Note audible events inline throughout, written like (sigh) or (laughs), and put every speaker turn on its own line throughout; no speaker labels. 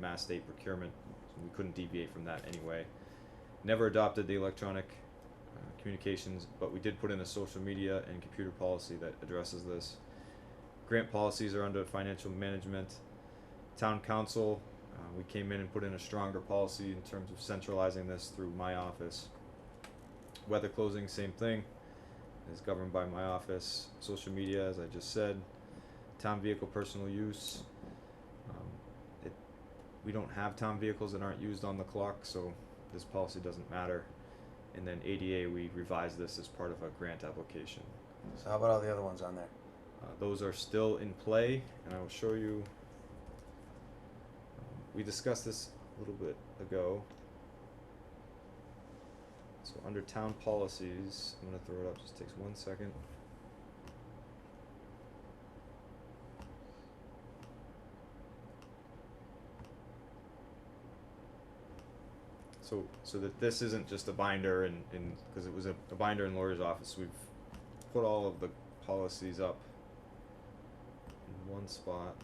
mass state procurement. We couldn't deviate from that anyway. Never adopted the electronic uh, communications, but we did put in a social media and computer policy that addresses this. Grant policies are under financial management. Town council, uh, we came in and put in a stronger policy in terms of centralizing this through my office. Weather closing, same thing, is governed by my office. Social media, as I just said. Town vehicle personal use. Um, it, we don't have town vehicles that aren't used on the clock, so this policy doesn't matter. And then ADA, we revised this as part of a grant application.
So how about all the other ones on there?
Uh, those are still in play, and I will show you. um, We discussed this a little bit ago. So under town policies, I'm gonna throw it up, just takes one second. So, so that this isn't just a binder and, and, cause it was a, a binder in lawyer's office, we've put all of the policies up in one spot.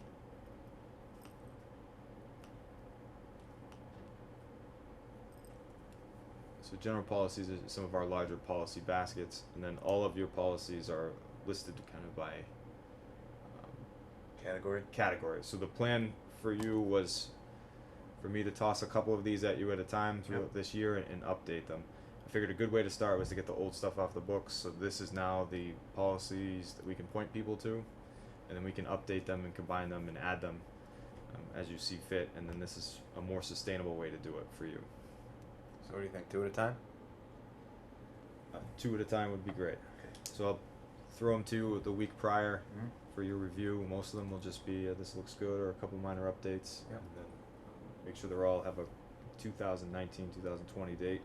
So general policies are some of our larger policy baskets, and then all of your policies are listed kind of by um,
Category?
categories. So the plan for you was for me to toss a couple of these at you at a time throughout this year and, and update them. I figured a good way to start was to get the old stuff off the books. So this is now the policies that we can point people to, and then we can update them and combine them and add them um, as you see fit. And then this is a more sustainable way to do it for you.
So what do you think? Two at a time?
Uh, two at a time would be great.
Okay.
So I'll throw them to you the week prior
Mhm.
for your review. Most of them will just be uh, this looks good or a couple minor updates.
Yep.
And then um, make sure they're all have a 2019 2020 date.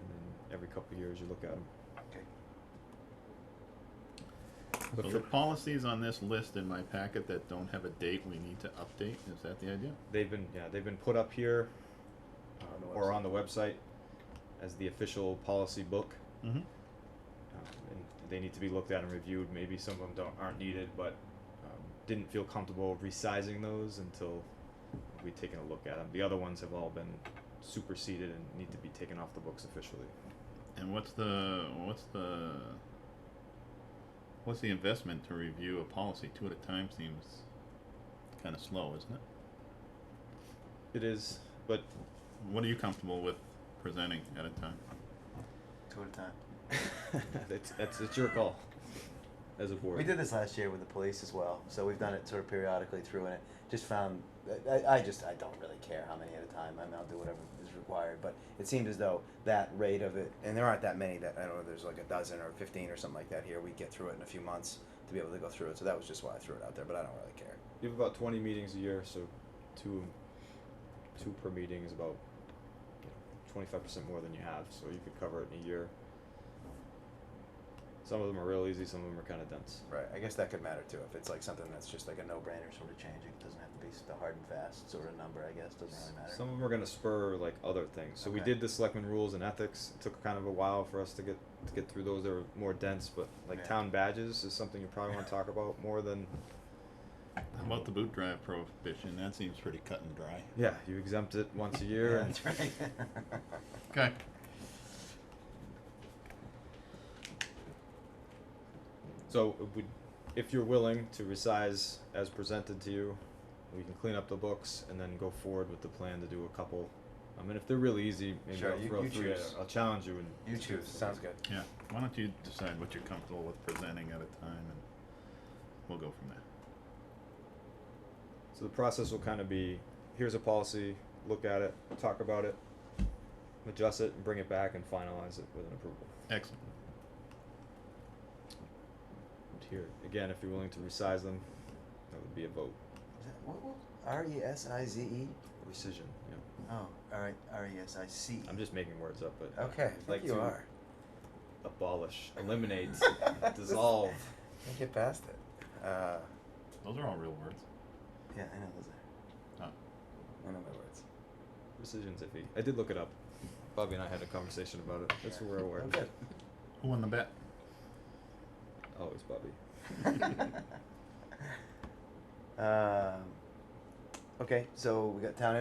And then every couple of years you look at them.
Okay.
But
So
for-
the policies on this list in my packet that don't have a date we need to update, is that the idea?
They've been yeah they've been put up here uh,
On the
or
website.
on the website as the official policy book.
Mm-hmm.
um, and they need to be looked at and reviewed. Maybe some of them don't aren't needed, but um, didn't feel comfortable resizing those until we'd taken a look at them. The other ones have all been superseded and need to be taken off the books officially.
And what's the, what's the, what's the investment to review a policy? Two at a time seems kinda slow, isn't it?
It is, but (laughs)
What are you comfortable with presenting at a time?
Two at a time.
that's that's it's your call as a board.
We did this last year with the police as well, so we've done it sort of periodically through, and it just found I- I, I just I don't really care how many at a time. I mean, I'll do whatever is required, but it seemed as though that rate of it, and there aren't that many. That I don't know. There's like a dozen or fifteen or something like that here. We get through it in a few months to be able to go through it. So that was just why I threw it out there, but I don't really care.
You have about twenty meetings a year, so two two per meeting is about twenty five percent more than you have, so you could cover it in a year. Some of them are real easy, some of them are kind of dense.
Right. I guess that could matter too if it's like something that's just like a no-brainer sort of change. It doesn't have to be the hard and fast sort of number. I guess doesn't really matter.
Some of them are going to spur like other things. So we
Okay.
did the selectmen rules and ethics. It took kind of a while for us to get to get through those. They were more dense, but like
Yeah.
town badges is something you probably want to talk about more than
How about the boot drive prohibition? That seems pretty cut and dry.
yeah. You exempt it
(laughs)
once a year.
yeah,
and-
that's right.
(laughs) Okay.
So it would, if you're willing to resize as presented to you, we can clean up the books and then go forward with the plan to do a couple. I mean, if they're really easy, maybe
Sure,
I'll
you-
throw
you
three. at-
choose.
I'll challenge you and
you choose. Sounds good.
Yeah, why don't you decide what you're comfortable with presenting at a time and we'll go from there.
So the process will kind of be, here's a policy, look at it, talk about it, adjust it, and bring it back and finalize it with an approval.
Excellent.
And Here, again, if you're willing to resize them, that would be a vote.
Is that- What, what? R E S I Z E?
Rescission, yeah.
Oh, all right. R E S I C.
I'm just making words up, but.
Okay, I
I'd
think
like
you
to
are. (laughs)
Abolish, eliminate, dissolve.
Can't get past it. Uh,
Those are all real words.
yeah, I know those are.
Oh.
I know my words.
Rescission's iffy. I did look it up. Bobby and I had a conversation about it. That's where we're aware
I'm
of it.
good.
Who won the bet?
Always
(laughs)
(laughs) Bobby.
um, Okay, so we got town